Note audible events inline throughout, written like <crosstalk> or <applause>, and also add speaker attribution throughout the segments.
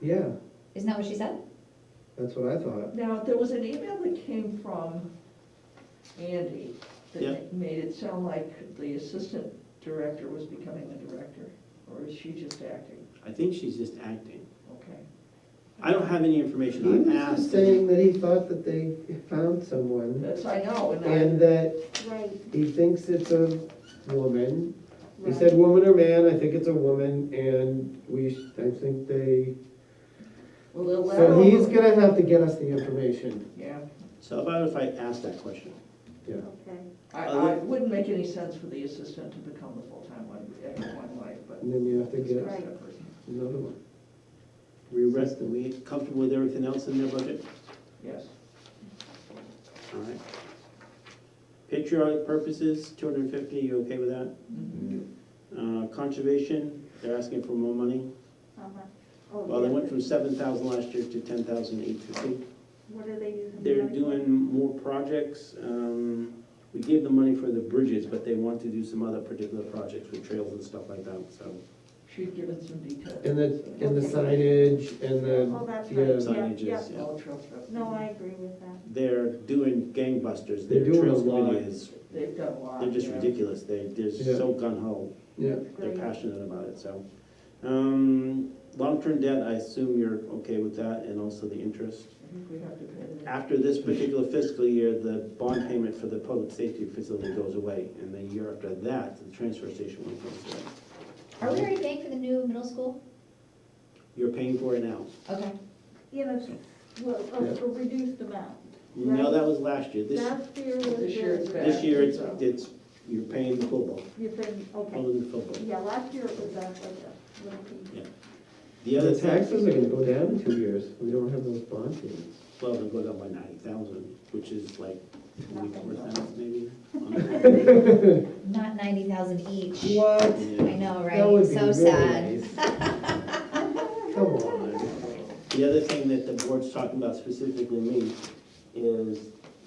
Speaker 1: Yeah,
Speaker 2: Isn't that what she said?
Speaker 1: that's what I thought.
Speaker 3: Now, there was an email that came from Andy
Speaker 4: Yeah.
Speaker 3: that made it sound like the assistant director was becoming the director, or is she just acting?
Speaker 4: I think she's just acting.
Speaker 3: Okay.
Speaker 4: I don't have any
Speaker 1: He
Speaker 4: information. I
Speaker 1: was just
Speaker 4: asked.
Speaker 1: saying that he thought that they found someone
Speaker 3: That's, I know,
Speaker 1: and
Speaker 3: and I,
Speaker 1: that
Speaker 5: Right,
Speaker 1: he thinks it's a woman. He
Speaker 5: right.
Speaker 1: said woman or man, I think it's a woman and we, sh- I think they,
Speaker 3: well, they'll let
Speaker 1: so he's
Speaker 3: her,
Speaker 1: gonna have to get us the information.
Speaker 3: yeah,
Speaker 4: So how about if I ask that question?
Speaker 1: Yeah,
Speaker 5: Okay,
Speaker 3: I,
Speaker 4: Uh,
Speaker 3: I wouldn't make any sense for the assistant to become the full-time one, at one way, but.
Speaker 1: and then you have to
Speaker 3: it's
Speaker 1: get
Speaker 3: not
Speaker 5: Right.
Speaker 3: separate.
Speaker 1: another one.
Speaker 4: We rest, are we comfortable with everything else in their budget?
Speaker 3: Yes,
Speaker 4: All right. Patriotic purposes, two hundred and fifty, you okay with that? Uh, conservation, they're asking for more money.
Speaker 5: uh-huh. Oh,
Speaker 4: Well, they
Speaker 5: yeah.
Speaker 4: went from seven thousand last year to ten thousand eight fifty.
Speaker 5: What are they using? the
Speaker 4: They're
Speaker 5: money for?
Speaker 4: doing more projects. Um, We gave them money for the bridges, but they want to do some other particular projects with trails and stuff like that, so.
Speaker 3: she'd given some details.
Speaker 1: And the, and the signage and
Speaker 5: Oh,
Speaker 1: the,
Speaker 5: that's
Speaker 1: yeah,
Speaker 5: right, yeah,
Speaker 4: Signages,
Speaker 5: yeah.
Speaker 4: yeah.
Speaker 3: All trail stuff.
Speaker 5: No, I agree with that.
Speaker 4: They're doing gangbusters.
Speaker 1: They're
Speaker 4: Their
Speaker 1: doing a
Speaker 4: trails
Speaker 1: lot.
Speaker 4: committee is,
Speaker 3: They've done a lot.
Speaker 4: they're just
Speaker 3: yeah.
Speaker 4: ridiculous. They, they're
Speaker 1: Yeah.
Speaker 4: so gun ho.
Speaker 1: yeah.
Speaker 4: They're
Speaker 5: Great.
Speaker 4: passionate about it, so. Um, Long-term debt, I assume you're okay with that and also the interest.
Speaker 3: I think we have to pay that.
Speaker 4: After this particular fiscal year, the bond payment for the public safety facility goes away. And the year after that, the transfer station one goes away.
Speaker 2: Are we already paying for the new middle school?
Speaker 4: You're paying for it now.
Speaker 2: Okay.
Speaker 5: You know, well, uh,
Speaker 1: Yeah.
Speaker 5: a, a reduced amount.
Speaker 4: No, that was last year. This,
Speaker 5: Last year was.
Speaker 3: This year it's
Speaker 5: the-
Speaker 3: back.
Speaker 4: this year, it's, it's, you're paying the full bill,
Speaker 5: You're paying, okay,
Speaker 4: only the full bill.
Speaker 5: yeah, last year it was back like a little piece.
Speaker 4: The
Speaker 1: The
Speaker 4: other taxes,
Speaker 1: taxes are gonna go down in two years. We don't have those bond payments.
Speaker 4: well, they go down by ninety thousand, which is like twenty-four
Speaker 2: <laughs>
Speaker 4: thousand maybe.
Speaker 2: Not ninety thousand each.
Speaker 5: Ah.
Speaker 1: What?
Speaker 2: I
Speaker 4: Yeah.
Speaker 2: know,
Speaker 1: That would
Speaker 2: right?
Speaker 1: be
Speaker 2: So
Speaker 1: really
Speaker 2: sad.
Speaker 1: nice.
Speaker 2: <laughs>
Speaker 1: Come on.
Speaker 4: The other thing that the board's talking about specifically me is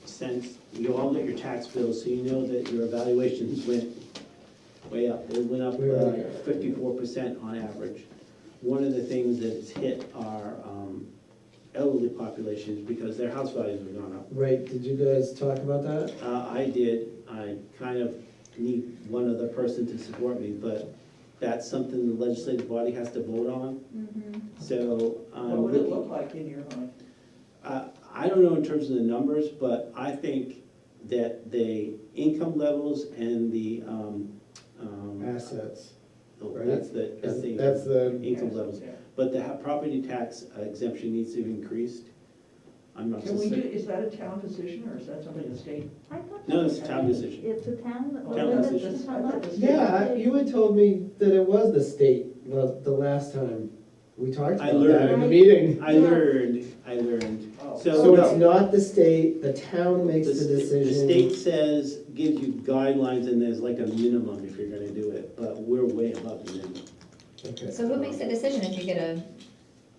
Speaker 4: since you all get your tax bills, so you know that your evaluations went way up. It went up uh,
Speaker 1: Really?
Speaker 4: fifty-four percent on average. One of the things that's hit are um, elderly populations because their house values have gone up.
Speaker 1: Right, did you guys talk about that?
Speaker 4: Uh, I did, I kind of need one other person to support me, but that's something the legislative body has to vote on,
Speaker 5: Mm-hmm.
Speaker 4: so. um,
Speaker 3: What would it look like in your mind?
Speaker 4: Uh, I don't know in terms of the numbers, but I think that the income levels and the, um, um,
Speaker 1: Assets.
Speaker 4: oh,
Speaker 1: right?
Speaker 4: that's the, that's the.
Speaker 1: That's the,
Speaker 4: Income levels,
Speaker 3: Yeah.
Speaker 4: but the ha- property tax exemption needs to be increased. I'm not. so
Speaker 3: Can we do,
Speaker 4: cer-
Speaker 3: is that a town position or is that something the state?
Speaker 5: I thought.
Speaker 4: No,
Speaker 5: that-
Speaker 4: it's a town decision.
Speaker 5: It's a town. that-
Speaker 4: Town
Speaker 5: well,
Speaker 4: decision.
Speaker 5: that's how much?
Speaker 1: yeah, you had told me that it was the state the, the last time we talked
Speaker 4: I
Speaker 1: about that in the
Speaker 5: learned.
Speaker 1: meeting.
Speaker 4: I learned, I learned,
Speaker 3: Oh.
Speaker 4: so.
Speaker 1: So
Speaker 4: no.
Speaker 1: it's not the state, the town makes the
Speaker 4: sta-
Speaker 1: decision.
Speaker 4: state says, gives you guidelines and there's like a minimum if you're gonna do it, but we're way above the minimum.
Speaker 1: Okay.
Speaker 2: <laughs> So who makes the decision if you get a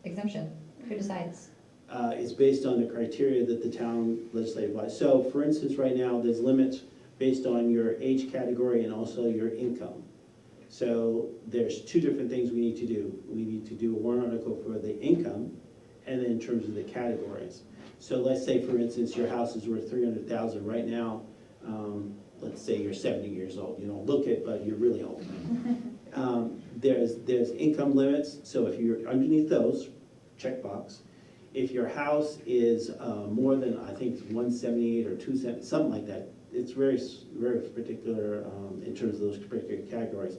Speaker 2: exemption? Who decides?
Speaker 4: Uh, it's based on the criteria that the town legislative by. So for instance, right now, there's limits based on your age category and also your income. So there's two different things we need to do. We need to do a warrant article for the income and then in terms of the categories. So let's say, for instance, your house is worth three hundred thousand right now. Um, let's say you're seventy years old, you don't look it, but you're really old. Um, there's, there's income limits, so if you're underneath those, checkbox. If your house is, uh, more than, I think, one seventy-eight or two seventy, something like that, it's very, s- very particular, um, in terms of those particular categories.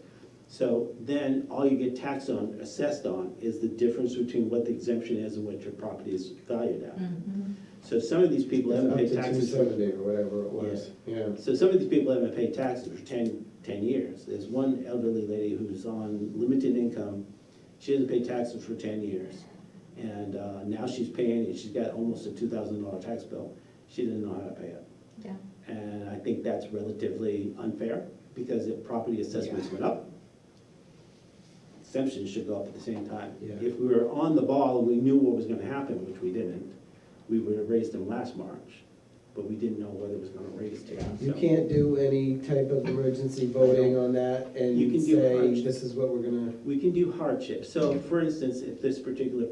Speaker 4: So then, all you get taxed on, assessed on, is the difference between what the exemption is and what your property is valued at. So some of these people
Speaker 1: It's
Speaker 4: haven't
Speaker 1: up
Speaker 4: paid
Speaker 1: to two
Speaker 4: taxes for
Speaker 1: seventy or whatever it was, yeah.
Speaker 4: so some of these people haven't paid taxes for 10 10 years. There's one elderly lady who's on limited income, she hasn't paid taxes for ten years. And uh, now she's paying, and she's got almost a two thousand dollar tax bill, she didn't know how to pay it.
Speaker 2: Yeah.
Speaker 4: And I think that's relatively unfair, because if property assessments went up, exemptions should go up at the same time.
Speaker 1: Yeah.
Speaker 4: If we were on the ball, and we knew what was gonna happen, which we didn't, we would have raised them last March, but we didn't know whether it was gonna raise to.
Speaker 1: You can't do any type of emergency voting on that and
Speaker 4: You can do
Speaker 1: say,
Speaker 4: hardship.
Speaker 1: this is what we're gonna.
Speaker 4: We can do hardship, so for instance, if this particular